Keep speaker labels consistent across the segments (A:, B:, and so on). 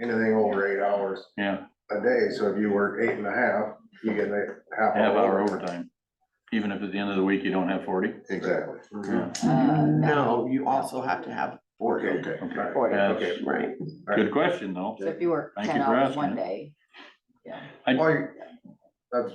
A: anything over eight hours
B: yeah,
A: a day, so if you work eight and a half, you get a half.
B: half hour overtime, even if at the end of the week you don't have forty.
A: Exactly. Mm-hmm.
B: Yeah,
C: Uh, no,
D: No, you also have to have forty.
A: Okay.
B: Okay.
A: Forty,
B: That's
A: okay.
D: Right,
B: Good question, though.
C: so if you work
B: Thank
C: ten
B: you for
C: hours
B: asking
C: one
B: it.
C: day,
A: Well, you- that's,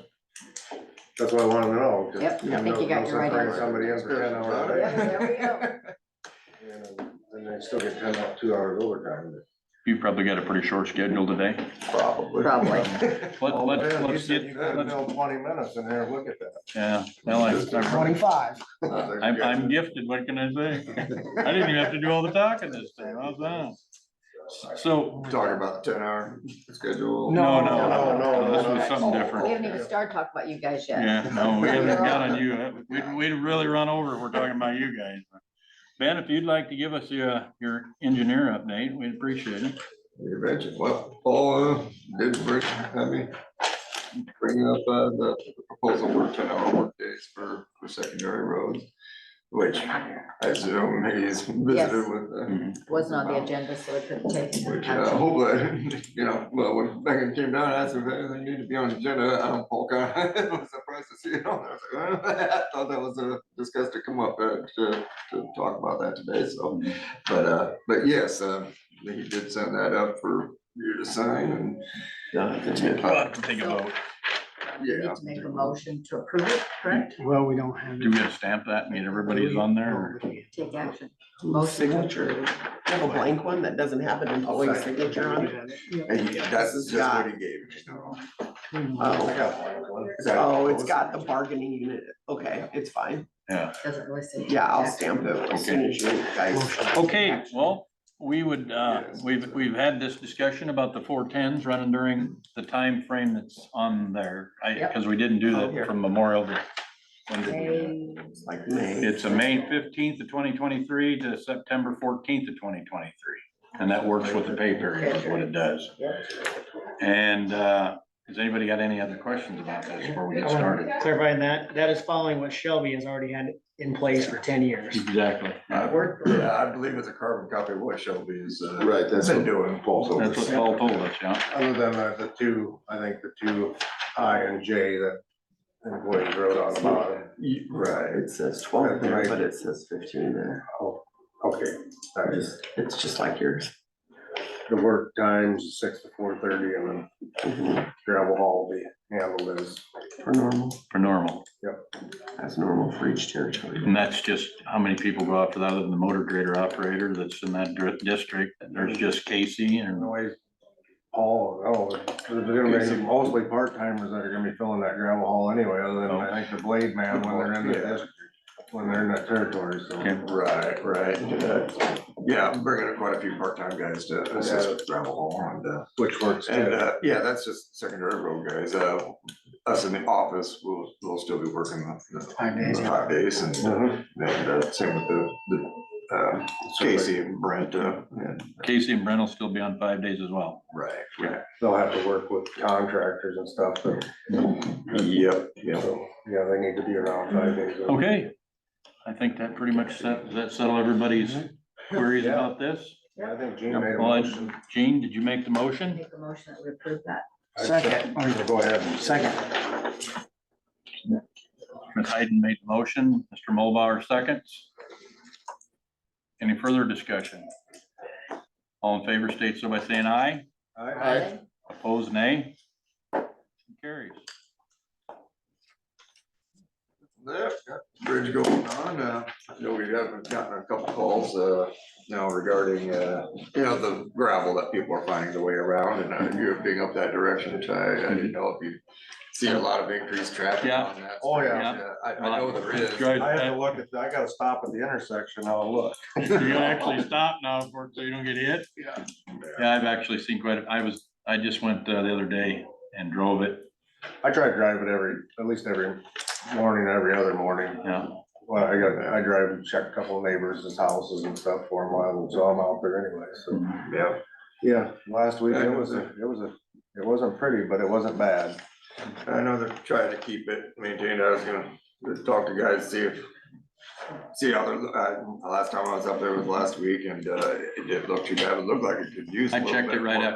A: that's what I wanted to know. just-
C: Yep, I
A: no-
C: think you got
A: no
C: your right
A: surprise
C: answer.
A: Somebody else for ten hours a
C: Yep, there we
A: day.
C: go.
A: You know, And they still get ten, out- two hours overtime.
B: You probably got a pretty short schedule today.
D: probably.
C: probably.
B: Let,
A: Oh,
B: let's,
A: man, you
B: let's
A: said
B: get,
A: You gotta
B: let's-
A: build twenty minutes in there, look at that.
B: yeah, well, I, I-
E: Twenty-five.
B: I'm, I'm gifted, what can I say? I didn't even have to do all the talking this time, how's that? So,
F: Talking about the ten hour schedule.
B: no, no,
E: No,
A: no,
B: no,
A: no,
B: no, this was
A: no.
B: something
C: We
B: different.
C: haven't even started talking about you guys yet.
B: Yeah, no, we haven't got on you, we'd, we'd really run over if we're talking about you guys. Ben, if you'd like to give us your, your engineer update, we'd appreciate it.
F: You mentioned, well, Paul uh, did bring, I mean, bring up uh, the proposal for ten hour workdays for, for secondary roads, which I assume he's
C: Yes.
F: visited with. uh,
A: Mm-hmm.
C: Wasn't on the agenda, so it couldn't take.
F: Which, uh,
C: action.
F: hopefully, you know, well, when Megan came down, I asked her if anything needed to be on the agenda, I don't poke out, I was surprised to see it on there. I was like, I thought that was a discuss to come up uh, to, to talk about that today, so. But, uh, but yes, uh, he did send that up for you to sign and. uh, to take
B: We'll have
F: a-
B: to Take a vote,
C: You Need to make a motion to approve it, correct?
E: Well, we don't have.
B: do we have to stamp that, and get everybody's on there, or?
C: Take action.
D: Most signature, you have a blank one that doesn't have an employee signature on it.
F: And he- that's just what he gave me.
D: Oh,
A: I got one, one.
F: Is that-
D: oh, it's got the bargaining unit, okay, it's fine,
C: Doesn't really say.
D: yeah, I'll
C: action.
D: stamp it as soon as you guys.
B: Okay, well, we would, uh,
F: Yes.
B: we've, we've had this discussion about the four tens running during the time frame that's on there. I,
C: Yep.
B: cause we didn't do
D: Oh, here.
B: that from Memorial to. when did we do that?
D: It's Like May,
B: It's a May fifteenth of twenty twenty-three to September fourteenth of twenty twenty-three. And that works with the pay period, is what it does. And, uh, has anybody got any other questions about this before we get started?
E: Clarifying that, that is following what Shelby has already had in place for ten years.
B: Exactly.
F: I worked, yeah, I believe it's a carbon copy of what Shelby is, uh,
A: Right, that's.
F: been doing. Paul's over
B: That's what
F: there.
B: Paul told us, yeah.
A: Other than that, the two, I think the two I and J that employees wrote on about.
F: Ye- Right.
D: right, it says twelve there, but it says fifteen there,
A: Okay, that is
D: it's just like yours.
A: the work times, six to four thirty, and then
D: Mhm,
A: gravel haul will be handled as
D: For normal,
B: For normal.
D: as normal for each territory.
B: And that's just how many people go out for that, other than the motor grader operator that's in that dri- district, and there's just Casey and,
A: noise. Paul, oh, there's gonna be mostly part timers that are gonna be filling that gravel haul anyway, other than I think the blade man when they're in the district. When they're in that territory, so.
B: Okay.
F: Right, right. yeah. Yeah, I'm bringing in quite a few part-time guys to assist with gravel haul and, uh,
A: Which works.
F: and, uh, yeah, that's just secondary road guys. Uh, us in the office, we'll, we'll still be working the, the
D: Five days.
F: five days and,
A: Uh-huh.
F: and, uh, same with the, the, uh, Casey and Brent, uh, and,
B: Casey and Brent will still be on five days as well.
F: right, right.
A: They'll have to work with contractors and stuff, but,
F: Yep, yep.
A: so, yeah, they need to be around five days. a week.
B: Okay, I think that pretty much set, does that settle everybody's queries
A: Mm-hmm. Yeah.
B: about this.
A: Yeah, I think Gene made a
B: Well, I-
A: motion.
B: Gene, did you make the motion?
C: Make a motion that we approve that.
E: Second.
A: Go ahead.
E: Second.
B: Ms. Hayden made the motion, Mr. Mulbauer seconds. Any further discussion? All in favor state so by saying aye.
A: Aye.
B: Opposed, nay? Carries.
F: There, got the bridge going on, uh, I know we haven't gotten a couple calls, uh, now regarding, uh, you know, the gravel that people are finding the way around and uh, you're being up that direction, which I, I didn't know if you see a lot of increased traffic
B: Yeah.
F: on that.
A: Oh, yeah.
F: Uh, I, I know there is.
B: Drives-
A: I have to look at, I gotta stop at the intersection, I'll look.
B: You're gonna actually stop now for, so you don't get hit?
F: Yeah.
B: Yeah, I've actually seen quite, a- I was, I just went uh, the other day and drove it,
A: I try to drive it every, at least every morning, every other morning.
B: yeah.
A: Well, I got, I drive and check a couple of neighbors' houses and stuff for a while, so I'm out there anyway, so.
F: Yeah.
A: Yeah, last week, it Mm-hmm. was, a it was, a it wasn't pretty, but it wasn't bad.
F: I know they're trying to keep it maintained. I was gonna talk to guys, see if, see how they're, uh, the last time I was up there was last week and, uh, it didn't look too bad. It looked like it could use. a
B: I
F: little
B: checked
F: bit
B: it right
F: more.
B: after